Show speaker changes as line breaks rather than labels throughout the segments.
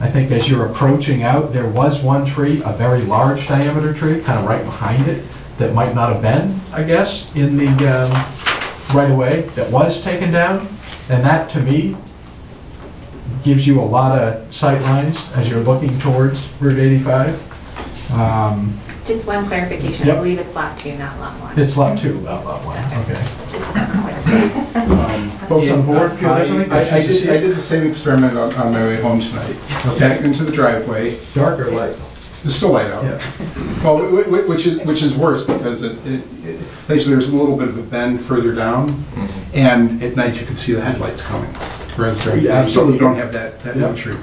I think as you're approaching out, there was one tree, a very large diameter tree, kind of right behind it, that might not have been, I guess, in the um, right away that was taken down. And that, to me, gives you a lot of sight lines as you're looking towards Route 85. Um,
Just one clarification, I
Yep.
believe it's lot two, not lot one.
It's lot two, not lot one, okay.
Just that clarification.
Folks on board feel
I-
differently?
I, I
Yes, yes,
did, I did the same experiment on, on my way home tonight. Back into the driveway,
yes. Dark or light?
it's still light out.
Yeah.
Well, wh- wh- which is, which is worse because it, it, it- actually there's a little bit of a bend further down
Mm-hmm.
and at night you can see the headlights coming. Whereas during the day, you
Absolutely.
don't have that, that
Yep.
luxury.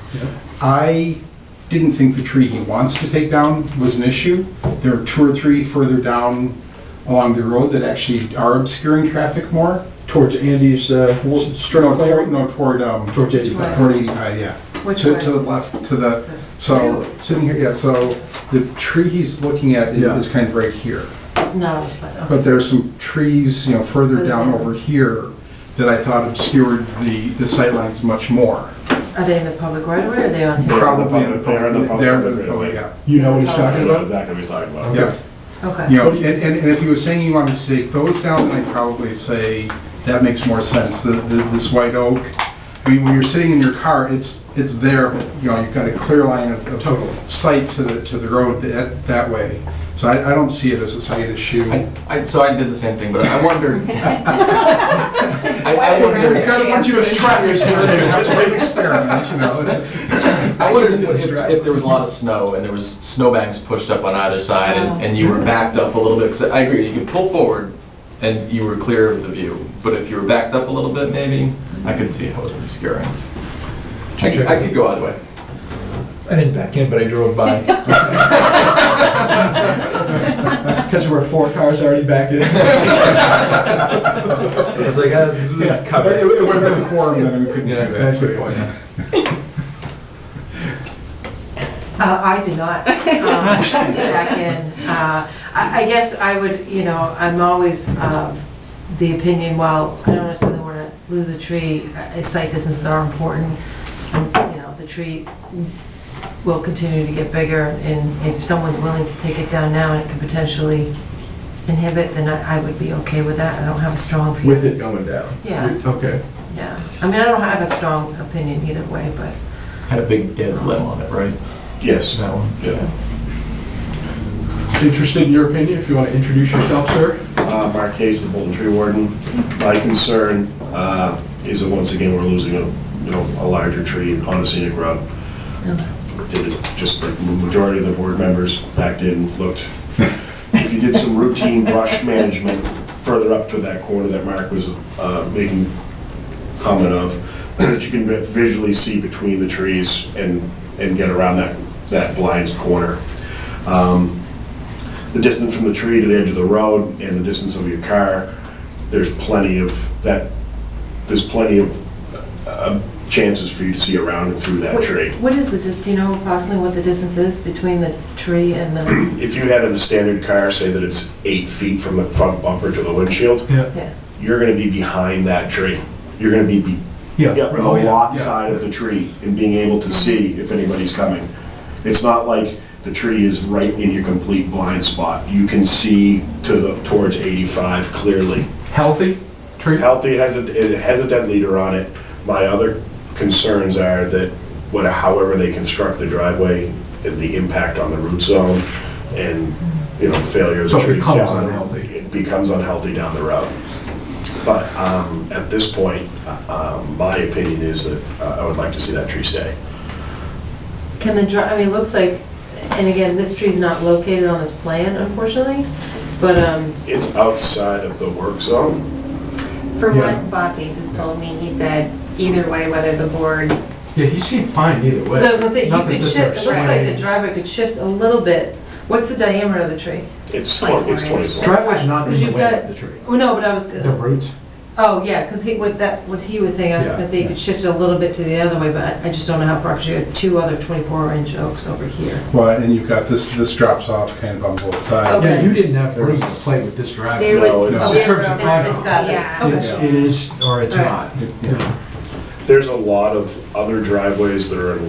I didn't think the tree he wants to take down was an issue. There are two or three further down along the road that actually are obscuring traffic more.
Towards Andy's uh, strip
No,
of
toward,
clearing?
no, toward, um,
Towards 85.
toward 85, yeah.
Which
To, to the
one?
left, to the, so, sitting here, yeah, so the tree he's looking at is-
Yeah.
is kind of right here.
It's not on this one.
But there's some trees, you know, further down over here that I thought obscured the, the sightlines much more.
Are they in the public right away or are they on here?
Probably in the
public- they're in the
public,
public
they're in the
right away.
public, yeah.
You know what he's talking
I know
about?
Exactly what he's talking about.
Yeah,
Okay.
you know, and, and and if he was saying you wanted to take those down, then I'd probably say that makes more sense, the, the, this white oak. I mean, when you're sitting in your car, it's, it's there, but, you know, you've got a clear line of, of
Totally.
sight to the, to the road that, that way. So I, I don't see it as a sight issue.
I, I, so I did the same thing, but I wondered. I, I
I
wondered,
kind of want you to try yours here, you have to make an experiment, you know, it's,
I wondered if, if there was a lot of snow and there was snowbanks pushed up on either side and, and you were backed up a little bit. 'cause I agree, you could pull forward and you were clear of the view, but if you were backed up a little bit, maybe I could see how it was obscuring. I could, I could go either way.
I didn't back in, but I drove by. Because there were four cars already backed in.
I was like,
"Oh,
ah, this
yeah.
is
It
covered.
would- it would have been a quorum, then we couldn't do
Yeah,
that.
That's a good point.
Uh, I do not, um, back in, uh, I, I guess I would, you know, I'm always of the opinion, while I don't necessarily wanna lose a tree, uh, site distances are important. And, You know, the tree will continue to get bigger, and if someone's willing to take it down now and it could potentially inhibit, then I, I would be okay with that, I don't have a strong feeling.
With it going down?
Yeah.
Okay.
Yeah, I mean, I don't have a strong opinion either way, but.
Had a big dead limb on it, right?
Yes,
That one.
yeah.
Interested in your opinion, if you want to introduce yourself, sir?
Uh, Mark Case, the Bolton Tree Warden. My concern uh, is that once again, we're losing a, you know, a larger tree on a scenic road. Did it, just like the majority of the board members backed in, looked. If you did some routine brush management further up to that corner that Mark was uh, making comment of, that you can visually see between the trees and, and get around that, that blind corner. Um, the distance from the tree to the edge of the road and the distance of your car, there's plenty of that, there's plenty of uh, chances for you to see around and through that tree.
What is the, dis- do you know approximately what the distance is between the tree and the,
If you had a standard car, say that it's eight feet from the front bumper to the windshield,
Yeah.
yeah,
you're gonna be behind that tree. You're gonna be be- Yeah, the
Oh, yeah.
lot
Yeah.
side of the tree and being able to see if anybody's coming. It's not like the tree is right in your complete blind spot. You can see to the, towards 85 clearly.
Healthy tree?
Healthy has a, it has a dead leader on it. My other concerns are that what, however they construct the driveway, the impact on the root zone and, you know, failure of
So
the
it
tree.
becomes
down-
unhealthy.
It becomes unhealthy down the road. But um, at this point, uh, um, my opinion is that uh, I would like to see that tree stay.
can the, dri- I mean, it looks like, and again, this tree's not located on this plan unfortunately, but, um,
It's outside of the work zone.
For
Yeah.
what Bob Hayes has told me, he said, either way, whether the board,
Yeah, he seemed fine either way.
so I was gonna say, you
Not that
could
this
shift, it looks like the
explains-
driver could shift a little bit. What's the diameter of the tree?
It's 20 it's
24 inches.
24.
Driveway's not in
Because
the
you've
way
got-
of the tree.
Oh, no, but I was,
The roots?
oh, yeah, because he, what that, what he was saying, I was
Yeah,
gonna say, you
yeah.
could shift it a little bit to the other way, but I- I just don't know how far, because you had two other twenty-four inch oaks over here.
Well, and you've got this, this drops off kind of on both sides.
Yeah,
Okay.
you didn't have room to play with this driveway.
there
No,
was
it's-
zero.
In terms of
It's- It's got
Yeah.
it, okay.
It's, it is, or it's
All right.
not.
Yeah.
There's a lot of other driveways that are in